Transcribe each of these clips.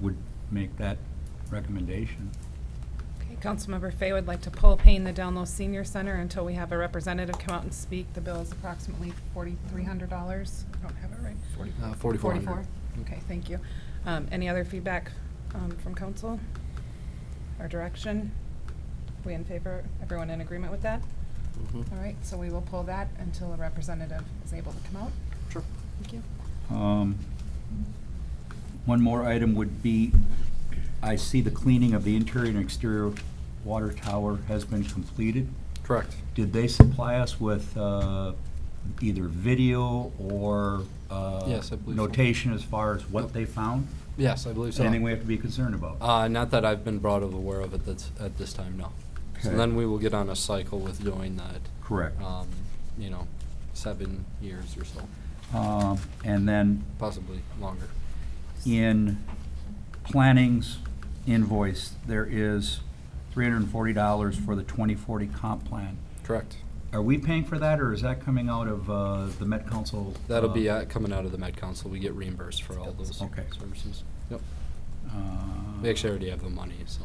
would make that recommendation. Okay, Councilmember Fay would like to pull Payne the Down Low Senior Center until we have a representative come out and speak. The bill is approximately forty-three hundred dollars. I don't have it right. Uh, 4,400. Okay, thank you. Um, any other feedback, um, from council? Or direction? We in favor? Everyone in agreement with that? Mhm. All right, so we will pull that until a representative is able to come out. Sure. Thank you. Um, One more item would be, I see the cleaning of the interior and exterior water tower has been completed. Correct. Did they supply us with uh, either video or uh, Yes, I believe so. notation as far as what Yep. they found? Yes, I believe so. Anything we have to be concerned about? Uh, not that I've been brought of aware of at this, at this time, no. So Okay. then we will get on a cycle with doing that, Correct. um, you know, seven years or so, Um, And then possibly longer. in planning's invoice, there is $340 for the 2040 comp plan. Correct. Are we paying for that, or is that coming out of uh, the Met Council? That'll be uh, uh, coming out of the Med Council. We get reimbursed for all those Okay. services. Yep. uh, We actually already have the money, so.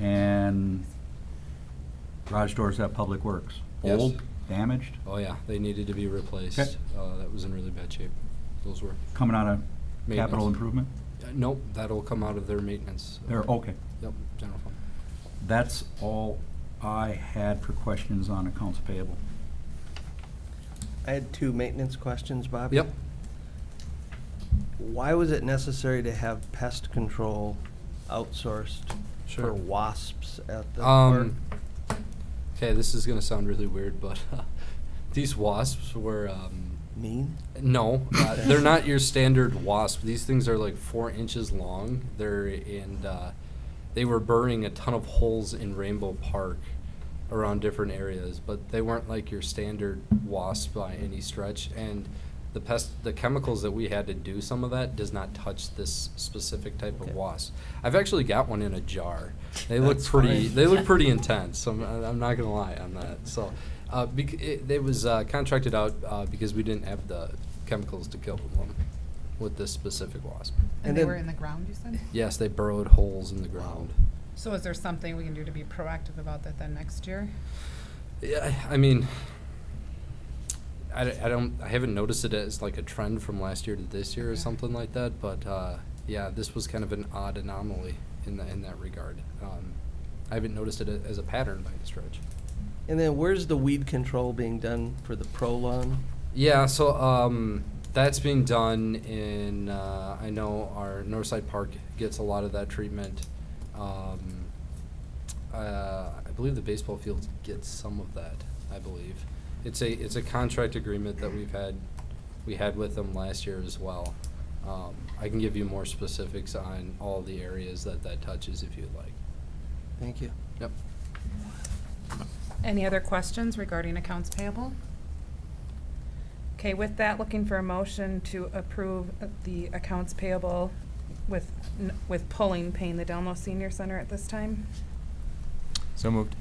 And garage doors at Public Works? Yes. Old, damaged, Oh, yeah, they needed to be replaced. Okay. Uh, that was in really bad shape. Those were. coming out of capital Maintenance. improvement? Uh, Nope, that'll come out of their maintenance. There, okay. Yep, general fund. That's all I had for questions on accounts payable. I had two maintenance questions, Bob. Yep. Why was it necessary to have pest control outsourced Sure. for wasps at the park? Um, okay, this is gonna sound really weird, but these wasps were um, Mean? no, uh, they're not your standard wasp. These things are like four inches long. They're and uh, they were burning a ton of holes in Rainbow Park around different areas, but they weren't like your standard wasp by any stretch. And the pest, the chemicals that we had to do some of that does not touch this specific type Okay. of wasp. I've actually got one in a jar. They look That's pretty. fine. They look pretty intense. I'm, I'm not gonna lie on that. So, uh, bec- it, it was uh, contracted out uh, because we didn't have the chemicals to kill them with this specific wasp. And And they then- were in the ground, you said? Yes, they burrowed holes in the ground. So is there something we can do to be proactive about that then next year? Yeah, I mean, I, d- I don't, I haven't noticed it as like a trend from last year to this year or Okay. something like that, but, uh, yeah, this was kind of an odd anomaly in that, in that regard. Um, I haven't noticed it a- as a pattern by any stretch. And then where's the weed control being done for the pro lawn? Yeah, so, um, that's being done in, uh, I know our Northside Park gets a lot of that treatment. Um, uh, I believe the baseball field gets some of that, I believe. It's a, it's a contract agreement that we've had, we had with them last year as well. Um, I can give you more specifics on all the areas that that touches if you'd like. Thank you. Yep. Any other questions regarding accounts payable? Okay, with that, looking for a motion to approve the accounts payable with, n- with pulling paying the Delmo Senior Center at this time. So moved.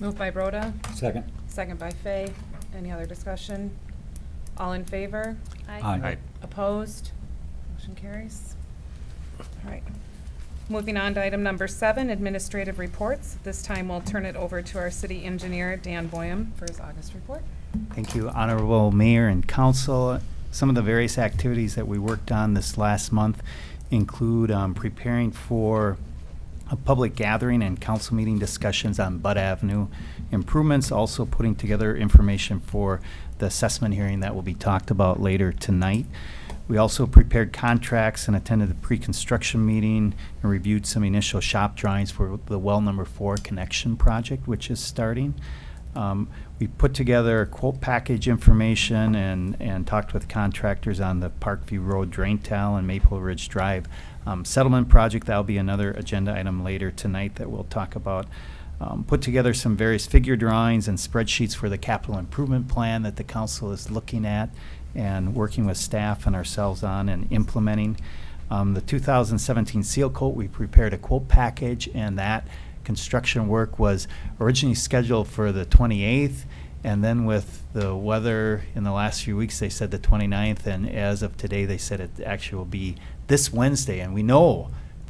Moved by Rhoda, Second. second by Fay. Any other discussion? All in favor? Aye. Opposed? Motion carries. All right. Moving on to item number seven, administrative reports. This time, we'll turn it over to our city engineer, Dan Boyum, for his August report. Thank you, Honorable Mayor and Council. Some of the various activities that we worked on this last month include um, preparing for a public gathering and council meeting discussions on Bud Avenue improvements, also putting together information for the assessment hearing that will be talked about later tonight. We also prepared contracts and attended the pre-construction meeting and reviewed some initial shop drawings for the well number four connection project, which is starting. Um, We put together quote package information and, and talked with contractors on the Parkview Road Drain Tile and Maple Ridge Drive um, settlement project. That'll be another agenda item later tonight that we'll talk about. Um, Put together some various figure drawings and spreadsheets for the capital improvement plan that the council is looking at and working with staff and ourselves on and implementing. Um, The 2017 seal coat, we prepared a quote package and that construction work was originally scheduled for the 28th, and then with the weather in the last few weeks, they said the 29th, and as of today, they said it actually will be this Wednesday, and we know